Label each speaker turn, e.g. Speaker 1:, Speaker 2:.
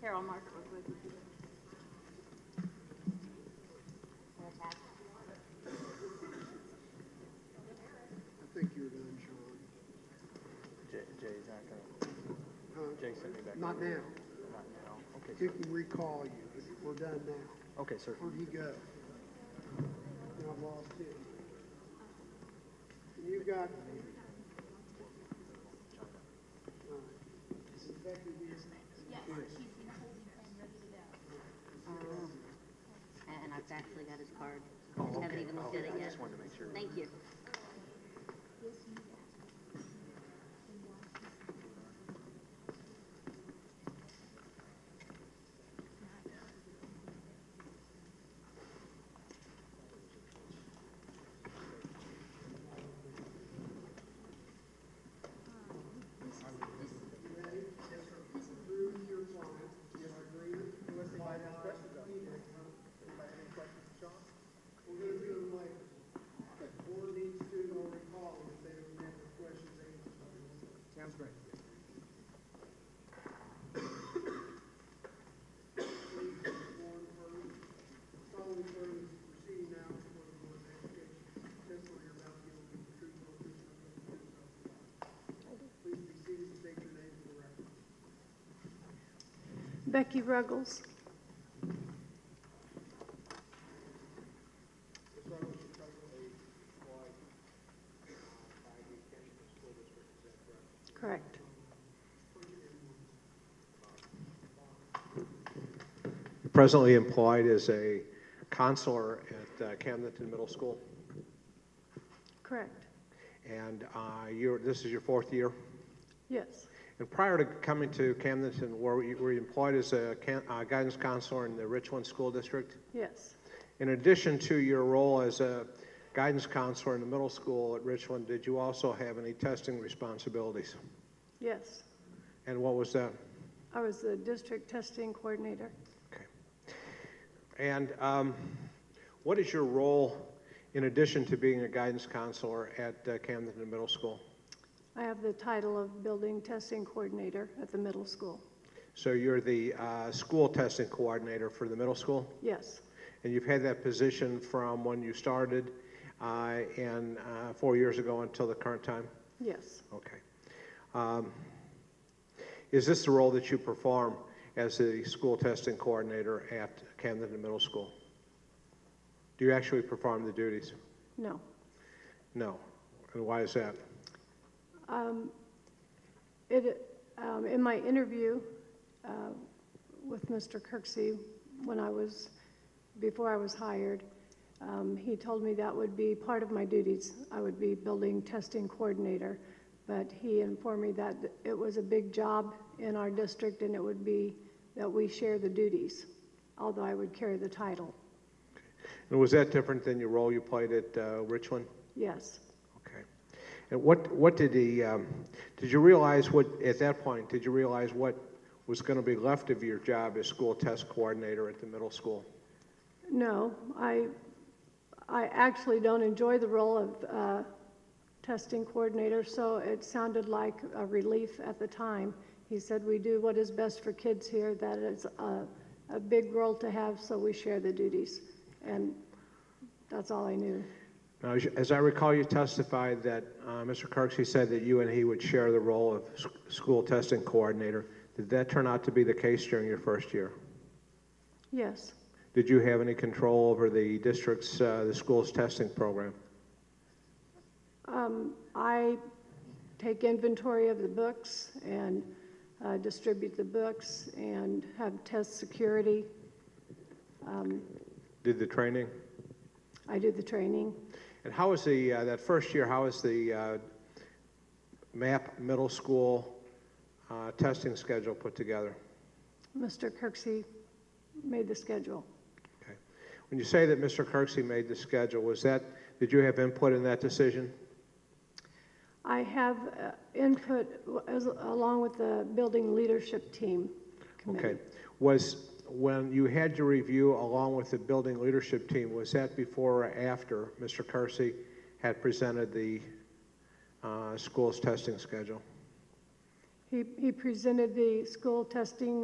Speaker 1: Carol, mark it real quick.
Speaker 2: I think you're done, Sean.
Speaker 3: Jay, Jay's not gonna,
Speaker 2: Huh?
Speaker 3: Jay sent me back.
Speaker 2: Not now.
Speaker 3: Not now, okay,
Speaker 2: It can recall you, but we're done now.
Speaker 3: sir. okay, sir.
Speaker 2: Where'd he go? Now I've lost it. You got. Is it Becky Beard?
Speaker 4: And I've actually got his card.
Speaker 3: Oh,
Speaker 4: I haven't even looked at it
Speaker 3: I
Speaker 4: yet.
Speaker 3: just wanted to make sure.
Speaker 4: Thank you.
Speaker 2: We're gonna do them like, the board needs to or recall if they don't have the questions answered.
Speaker 5: Sounds great.
Speaker 2: Please, form first, following first, proceed now for the board's application. Testify you're about to give the truth, the whole truth, and nothing but the truth. Please be seated and state your name for the record.
Speaker 6: Becky Ruggles.
Speaker 2: Ms. Reynolds, you're presently employed uh, by the Kensington School District, is that correct?
Speaker 6: Correct.
Speaker 7: presently employed as a counselor at uh, Camdenton Middle School.
Speaker 6: Correct.
Speaker 7: And uh, you're, this is your fourth year.
Speaker 6: Yes.
Speaker 7: And prior to coming to Camdenton, were you, were you employed as a can, uh, guidance counselor in the Richland School District?
Speaker 6: Yes.
Speaker 7: In addition to your role as a guidance counselor in the middle school at Richland, did you also have any testing responsibilities?
Speaker 6: Yes.
Speaker 7: And what was that?
Speaker 6: I was the district testing coordinator.
Speaker 7: Okay. And um, what is your role in addition to being a guidance counselor at uh, Camden Middle School?
Speaker 6: I have the title of building testing coordinator at the middle school.
Speaker 7: So you're the uh, school testing coordinator for the middle school,
Speaker 6: Yes.
Speaker 7: and you've had that position from when you started uh, and uh, four years ago until the current time?
Speaker 6: Yes.
Speaker 7: Okay. Um, Is this the role that you perform as the school testing coordinator at Camden Middle School? Do you actually perform the duties?
Speaker 6: No.
Speaker 7: No. And why is that?
Speaker 6: It, um, in my interview, uh, with Mr. Kirksey, when I was, before I was hired, um, he told me that would be part of my duties. I would be building testing coordinator. But he informed me that it was a big job in our district and it would be that we share the duties, although I would carry the title.
Speaker 7: And was that different than your role you played at uh, Richland?
Speaker 6: Yes,
Speaker 7: Okay. And what, what did he, um, did you realize what, at that point, did you realize what was going to be left of your job as school test coordinator at the middle school?
Speaker 6: No, I, I actually don't enjoy the role of uh, testing coordinator, so it sounded like a relief at the time. He said, "We do what is best for kids here, that is a, a big role to have, so we share the duties." And that's all I knew.
Speaker 7: Now, as you- as I recall, you testified that uh, Mr. Kirksey said that you and he would share the role of s- school testing coordinator. Did that turn out to be the case during your first year?
Speaker 6: Yes,
Speaker 7: Did you have any control over the district's, uh, the school's testing program?
Speaker 6: I take inventory of the books and uh, distribute the books and have test security.
Speaker 7: Did the training?
Speaker 6: I do the training.
Speaker 7: And how is the, uh, that first year, how is the uh, MAP middle school uh, testing schedule put together?
Speaker 6: Mr. Kirksey made the schedule.
Speaker 7: Okay. When you say that Mr. Kirksey made the schedule, was that, did you have input in that decision?
Speaker 6: I have uh, input as- along with the building leadership team
Speaker 7: Okay.
Speaker 6: committee.
Speaker 7: Was, when you had your review along with the building leadership team, was that before or after Mr. Kirksey had presented the uh, school's testing schedule?
Speaker 6: He, he presented the school testing